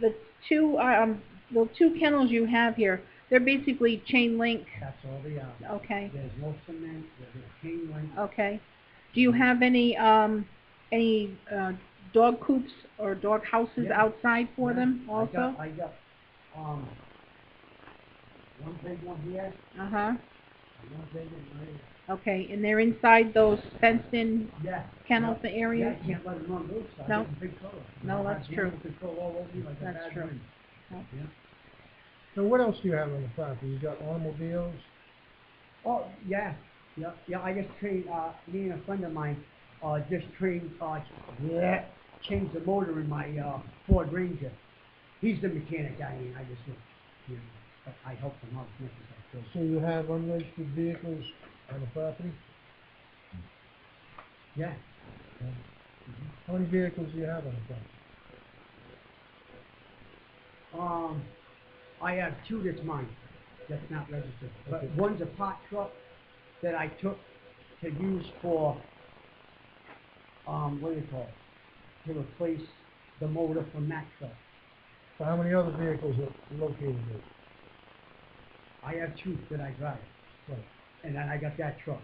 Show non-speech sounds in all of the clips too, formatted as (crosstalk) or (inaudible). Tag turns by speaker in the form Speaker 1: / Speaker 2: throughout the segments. Speaker 1: the two, um, the two kennels you have here, they're basically chain link,
Speaker 2: That's all they are.
Speaker 1: okay,
Speaker 2: There's no cement, there's a chain link.
Speaker 1: okay. Do you have any, um, any, uh, dog coops or dog houses
Speaker 2: Yeah.
Speaker 1: outside for them
Speaker 2: I got-
Speaker 1: also?
Speaker 2: I got, um, one big one here,
Speaker 1: Uh-huh,
Speaker 2: and one big one right
Speaker 1: okay, and they're inside those fenced-in
Speaker 2: here. Yeah.
Speaker 1: kennels
Speaker 2: yeah. Yeah,
Speaker 1: area?
Speaker 2: I can't let them run loose, I
Speaker 1: No.
Speaker 2: get a big color.
Speaker 1: No, that's true.
Speaker 2: Control all over me like a
Speaker 1: That's
Speaker 2: bad
Speaker 1: true.
Speaker 2: dream.
Speaker 1: Okay.
Speaker 2: Yeah.
Speaker 3: So what else do you have on the property? You got automobiles?
Speaker 2: Oh, yeah, yeah, yeah, I just trained, uh, me and a friend of mine, uh, just trained, uh, yeah, changed the motor in my, uh, Ford Ranger. He's the mechanic, I mean, I just, you know, but I help him out as much as I
Speaker 3: So
Speaker 2: could.
Speaker 3: you have unregistered vehicles on the property?
Speaker 2: Yeah,
Speaker 3: How many vehicles do you have on the property?
Speaker 2: um, I have two that's mine, that's not registered, but
Speaker 3: Okay.
Speaker 2: one's a pot truck that I took to use for, um, what do you call it? To replace the motor from that truck.
Speaker 3: So how many other vehicles are located there?
Speaker 2: I have two that I drive.
Speaker 3: Right.
Speaker 2: and then I got that truck,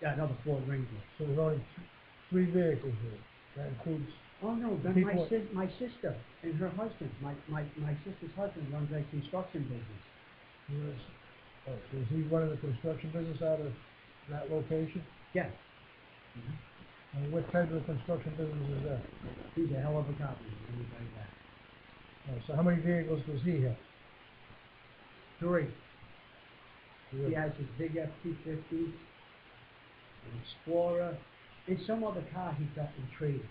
Speaker 2: that other Ford Ranger.
Speaker 3: So there's only th- three vehicles there. That includes,
Speaker 2: Oh no, then my
Speaker 3: People-
Speaker 2: sis, my sister and her husband, my, my, my sister's husband runs a construction business.
Speaker 3: yes. Oh, so is he running the construction business out of that location?
Speaker 2: Yeah,
Speaker 3: And what type of construction business is that?
Speaker 2: he's a hell of a copy, anybody that.
Speaker 3: Oh, So how many vehicles does he have?
Speaker 2: Three, he has his big F-250, an Explorer, and some other car he got in trade.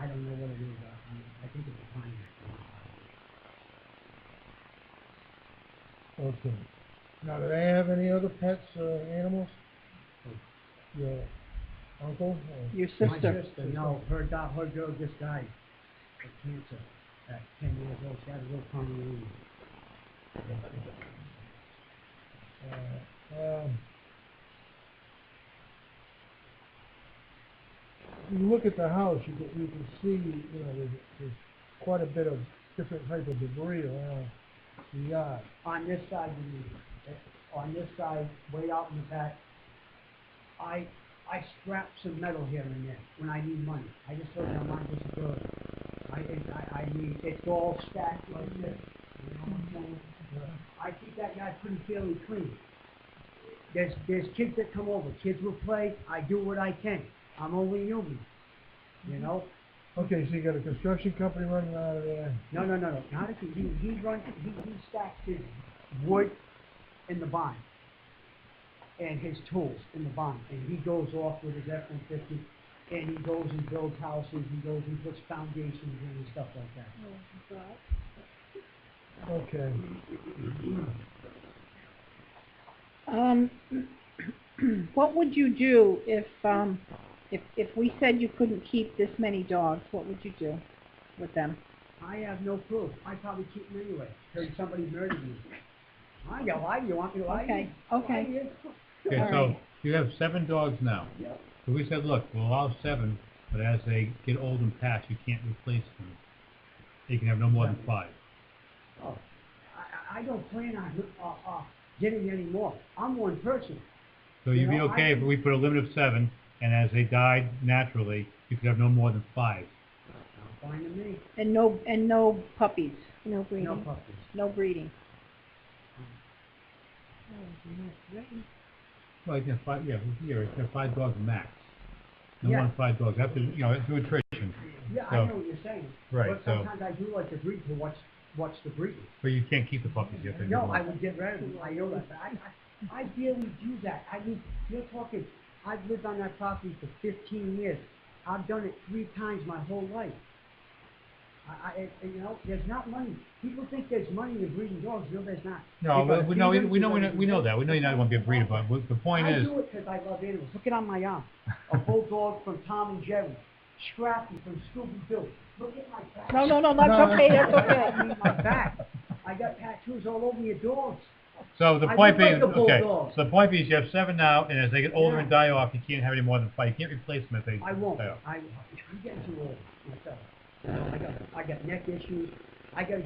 Speaker 2: I don't know what it is, I, I- I think it's a Pontiac.
Speaker 3: Okay. Now, do they have any other pets, uh, animals? Your uncle? or-
Speaker 1: Your
Speaker 2: My
Speaker 1: sister?
Speaker 2: sister, no, her dog, her girl just died of cancer at ten years old, she had a little pony.
Speaker 3: Uh, um, You look at the house, you can, you can see, you know, there's, there's quite a bit of different type of debris around the yard.
Speaker 2: on this side, you mean, eh, on this side, way out in the back, I, I scrap some metal here and there when I need money. I just don't have money just to do it. I, it- I, I need, it's all stacked like this, you know what I'm saying? I keep that guy pretty fairly clean. There's, there's kids that come over, kids will play, I do what I can. I'm only human, you know?
Speaker 3: Okay, so you got a construction company running out of there.
Speaker 2: No, no, no, no, not if he, he, he runs, he, he stacks his wood in the barn. And his tools in the barn, and he goes off with his F-150, and he goes and builds houses, he goes and puts foundations in and stuff like that.
Speaker 3: Okay.
Speaker 1: Um, (clears throat) what would you do if, um, if, if we said you couldn't keep this many dogs, what would you do with them?
Speaker 2: I have no proof, I probably keep him anyway, till somebody murdered me. I got lie, you want me to lie? to you?
Speaker 1: Okay, okay.
Speaker 2: Lie to you?
Speaker 4: Okay,
Speaker 1: All
Speaker 4: so
Speaker 1: right.
Speaker 4: you have seven dogs now.
Speaker 2: Yep.
Speaker 4: So we said, look, we'll allow seven, but as they get old and pass, you can't replace them. You can have no more than five.
Speaker 2: Oh, I, I- I don't plan on, uh, uh, getting any more, I'm one person.
Speaker 4: So
Speaker 2: You
Speaker 4: you'd be
Speaker 2: know, I
Speaker 4: okay if
Speaker 2: think-
Speaker 4: we put a limit of seven, and as they died naturally, you could have no more than five.
Speaker 2: Fine to me,
Speaker 1: And no, and no puppies? No
Speaker 2: no puppies.
Speaker 1: No breeding.
Speaker 4: Well, you can have five, yeah, here, you can have five dogs max. No
Speaker 2: Yeah.
Speaker 4: more than five dogs, after, you know, through attrition.
Speaker 2: Yeah, I
Speaker 4: So-
Speaker 2: know what you're saying.
Speaker 4: Right,
Speaker 2: But
Speaker 4: so-
Speaker 2: sometimes I do like to breed to watch, watch the breeding.
Speaker 4: But you can't keep the puppies, you have to. give
Speaker 2: No,
Speaker 4: them
Speaker 2: I
Speaker 4: up.
Speaker 2: would get rid of them, I know that, but I, I, I barely do that. I mean, you're talking, I've lived on that property for fifteen years. I've done it three times my whole life. I, I, it- you know, there's not money. People think there's money in breeding dogs, no, there's not.
Speaker 4: No,
Speaker 2: You gotta
Speaker 4: we- we know,
Speaker 2: feed
Speaker 4: we
Speaker 2: 'em,
Speaker 4: we
Speaker 2: you
Speaker 4: know, we know-
Speaker 2: gotta
Speaker 4: we know that, we know you're not gonna be a breeder,
Speaker 2: I
Speaker 4: but the point is.
Speaker 2: do it 'cause I love animals. Look it on my arm. A
Speaker 4: (laughs)
Speaker 2: bulldog from Tom and Jerry, Scrappy from Scooby-Doo. Look at my back.
Speaker 1: No, no, no, that's okay,
Speaker 2: (laughs)
Speaker 1: that's
Speaker 2: I
Speaker 1: okay.
Speaker 2: mean, my back. I got tattoos all over your dogs.
Speaker 4: So the
Speaker 2: I
Speaker 4: point
Speaker 2: do like
Speaker 4: being,
Speaker 2: the
Speaker 4: okay,
Speaker 2: Bulldogs.
Speaker 4: so the point being is you have seven now, and as they get older
Speaker 2: Yeah.
Speaker 4: and die off, you can't have any more than five, you can't replace them if they
Speaker 2: I won't.
Speaker 4: die off.
Speaker 2: I, I'm getting too old myself. I got, I got neck issues. I gotta go